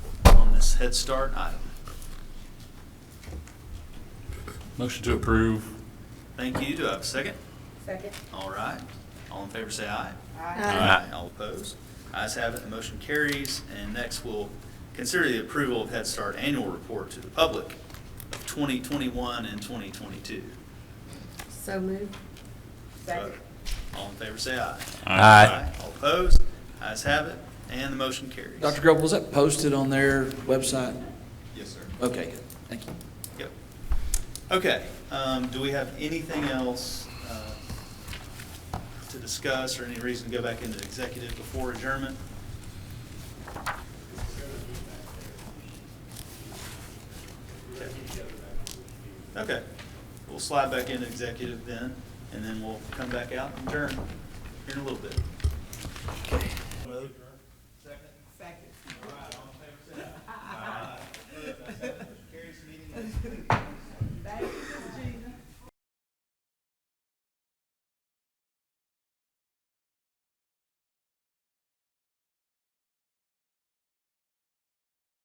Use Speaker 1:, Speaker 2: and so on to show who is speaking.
Speaker 1: Head Start item.
Speaker 2: Motion to approve.
Speaker 1: Thank you. Do I have a second?
Speaker 3: Second.
Speaker 1: All right. All in favor, say aye.
Speaker 3: Aye.
Speaker 2: Aye.
Speaker 1: All opposed? Ayes have it, the motion carries. And next, we'll consider the approval of Head Start Annual Report to the public of 2021 and 2022.
Speaker 3: So moved. Second.
Speaker 1: All in favor, say aye.
Speaker 2: Aye.
Speaker 1: All opposed? Ayes have it, and the motion carries.
Speaker 4: Dr. Grove, was that posted on their website?
Speaker 1: Yes, sir.
Speaker 4: Okay, good, thank you.
Speaker 1: Yep. Okay, um, do we have anything else, uh, to discuss or any reason to go back into executive before adjournment? Okay. Okay, we'll slide back into executive then, and then we'll come back out and adjourn here in a little bit.
Speaker 3: Thank you.